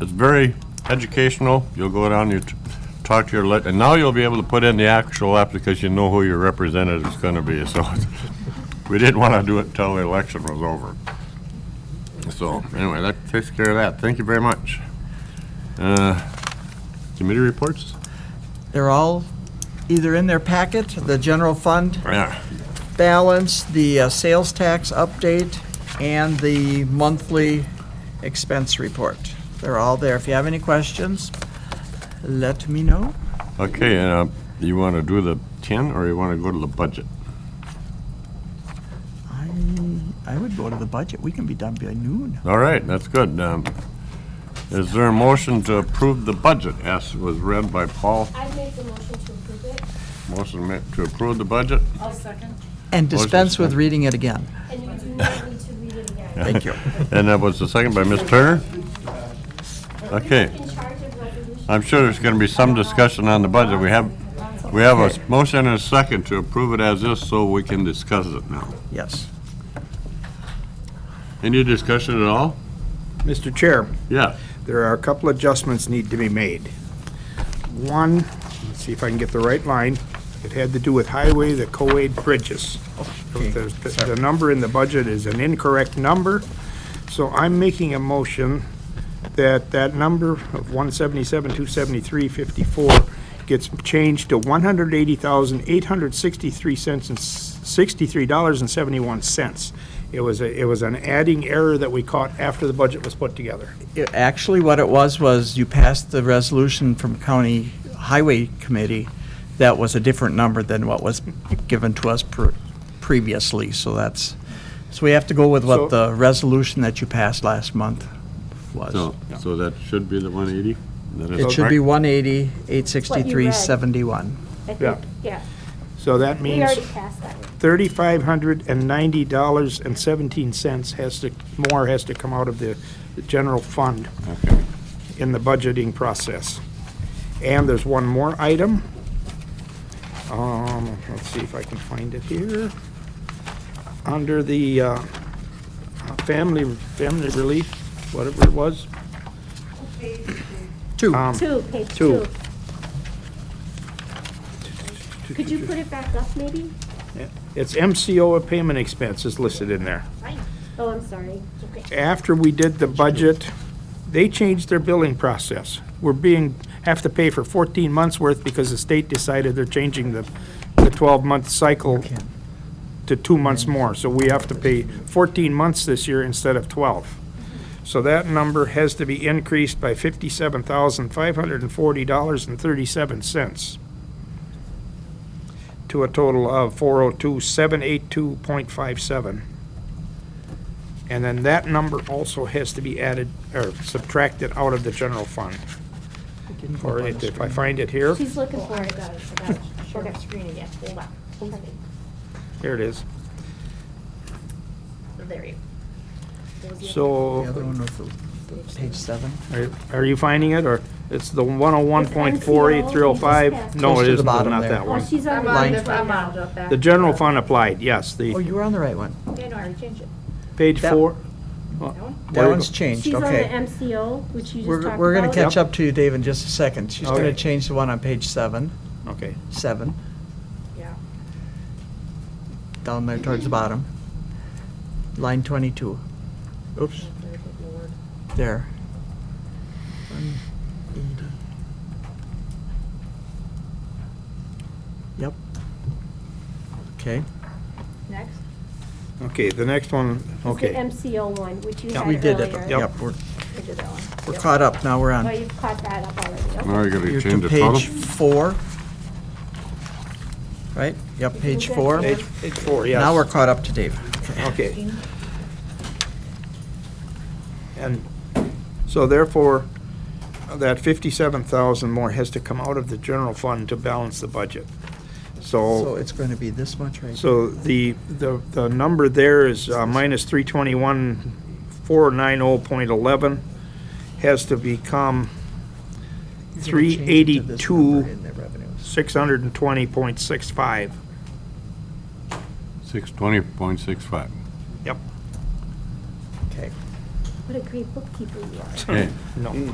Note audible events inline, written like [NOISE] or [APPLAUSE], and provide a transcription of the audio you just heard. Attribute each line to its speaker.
Speaker 1: It's very educational. You'll go down, you t- talk to your, lit- and now you'll be able to put in the actual app because you know who your representative's going to be. So [LAUGHS] it's- we didn't want to do it until the election was over. So anyway, that takes care of that. Thank you very much. Uh, Committee reports?
Speaker 2: They're all either in their packet, the general fund
Speaker 1: Yeah.
Speaker 2: balance, the uh, sales tax update, and the monthly expense report. They're all there. If you have any questions, let me know.
Speaker 1: Okay, uh, you want to do the 10 or you want to go to the budget?
Speaker 2: I, I would go to the budget. We can be done by noon.
Speaker 1: All right, that's good. Um, Is there a motion to approve the budget as was read by Paul?
Speaker 3: I'd make the motion to approve it,
Speaker 1: Motion ma- to approve the budget?
Speaker 2: And dispense with
Speaker 1: second.
Speaker 2: reading it again.
Speaker 3: and you do not need to read it again.
Speaker 2: Thank you.
Speaker 1: And that was the second by Ms. Turner? Okay, Uh,
Speaker 3: In charge of resolution,
Speaker 1: I'm sure there's gonna be some discussion on the budget. We have, we have a s- motion and a second to approve it as is, so we can discuss it now.
Speaker 2: [LAUGHS] Yes.
Speaker 1: Any discussion at all?
Speaker 4: Mr. Chair,
Speaker 1: Yeah,
Speaker 4: there are a couple adjustments need to be made. One, let's see if I can get the right line, it had to do with highway, the co-aid bridges. The the number in the budget is an incorrect number, so I'm making a motion that that number of 177, 273, 54 gets changed to 180,863 cents and, s- 63 dollars and 71 cents. It was, a it was an adding error that we caught after the budget was put together.
Speaker 2: It- Actually, what it was, was you passed the resolution from County Highway Committee that was a different number than what was given to us pre- previously, so that's, so we have to go with what
Speaker 4: So-
Speaker 2: the resolution that you passed last month was.
Speaker 1: so, so that should be the one eighty?
Speaker 2: It should be 180, 863, 71.
Speaker 3: I
Speaker 4: Yeah.
Speaker 3: think, yeah,
Speaker 4: So that
Speaker 3: we
Speaker 4: means
Speaker 3: already passed that. one.
Speaker 4: thirty-five hundred and ninety dollars and seventeen cents has to, more has to come out of the the general fund in the budgeting process. And there's one more item. Um, let's see if I can find it here. Under the, uh, uh, family, family relief, whatever it was,
Speaker 2: Two.
Speaker 4: um,
Speaker 3: Two, page two.
Speaker 4: Two.
Speaker 3: Could you put it back up, maybe?
Speaker 4: it's MCO of payment expense is listed in there.
Speaker 3: Oh, I'm sorry. Okay.
Speaker 4: after we did the budget, they changed their billing process. We're being, have to pay for 14 months' worth because the state decided they're changing the, the 12-month cycle to two months more. So we have to pay 14 months this year instead of 12. So that number has to be increased by $57,540.37 to a total of 402,782.57. And then that number also has to be added, or subtracted out of the general fund. Or if if I find it here,
Speaker 3: She's looking for it. Share the screen again, hold on. Hold on.
Speaker 4: here it is.
Speaker 3: There you. There was the-
Speaker 2: The
Speaker 4: So,
Speaker 2: other one was the- page seven.
Speaker 4: are- are you finding it, or it's the one oh one point four eight three oh five? No,
Speaker 2: Close
Speaker 4: it
Speaker 2: to the
Speaker 4: isn't,
Speaker 2: bottom
Speaker 4: not
Speaker 2: there.
Speaker 4: that
Speaker 3: Oh,
Speaker 4: one.
Speaker 3: she's on.
Speaker 5: I'm
Speaker 3: the
Speaker 5: on,
Speaker 3: line
Speaker 2: Line-
Speaker 5: the- I'm
Speaker 3: now.
Speaker 5: on the back.
Speaker 4: The general fund applied, yes,
Speaker 2: Oh,
Speaker 4: the
Speaker 2: you were on the right one.
Speaker 3: Yeah, no, I already changed it.
Speaker 4: page
Speaker 2: That-
Speaker 4: four.
Speaker 2: That
Speaker 4: you
Speaker 2: one's
Speaker 4: go.
Speaker 2: changed,
Speaker 3: She's on the
Speaker 2: okay.
Speaker 3: MCO, which you just talked
Speaker 2: We're,
Speaker 3: about.
Speaker 2: we're gonna catch
Speaker 4: Yep.
Speaker 2: up to you, Dave, in just a second. She's gonna
Speaker 4: Okay.
Speaker 2: change the one on page seven,
Speaker 4: Okay,
Speaker 2: seven.
Speaker 5: Yeah.
Speaker 2: down there towards the bottom. Line 22,
Speaker 1: Oops.
Speaker 2: there. Yep. Okay,
Speaker 5: Next.
Speaker 4: okay, the next one,
Speaker 3: It's the
Speaker 4: okay.
Speaker 3: MCO one, which you had
Speaker 4: Yep.
Speaker 2: we
Speaker 3: earlier.
Speaker 2: did it.
Speaker 4: Yep.
Speaker 2: Yep, we're,
Speaker 3: We did that one.
Speaker 2: we're caught up, now we're
Speaker 3: Well,
Speaker 2: on.
Speaker 3: you've caught that up already. Okay.
Speaker 1: Now you gotta
Speaker 2: You're to
Speaker 1: change the total?
Speaker 2: page four. Right, yep, page
Speaker 3: good.
Speaker 2: four.
Speaker 4: Page, page four, yes.
Speaker 2: Now we're caught up to Dave.
Speaker 4: Okay. And so therefore, that fifty-seven thousand more has to come out of the general fund to balance the budget.
Speaker 2: So
Speaker 4: So,
Speaker 2: it's gonna be this much right
Speaker 4: so the, the, the number there is uh, minus three twenty-one, four nine oh point eleven has to become
Speaker 2: You're gonna change it to this number
Speaker 4: 382.
Speaker 2: in the revenues.
Speaker 4: six hundred and twenty point six five.
Speaker 1: Six twenty point six five.
Speaker 2: Okay.
Speaker 3: What a great bookkeeper you are.
Speaker 1: Okay.
Speaker 4: No.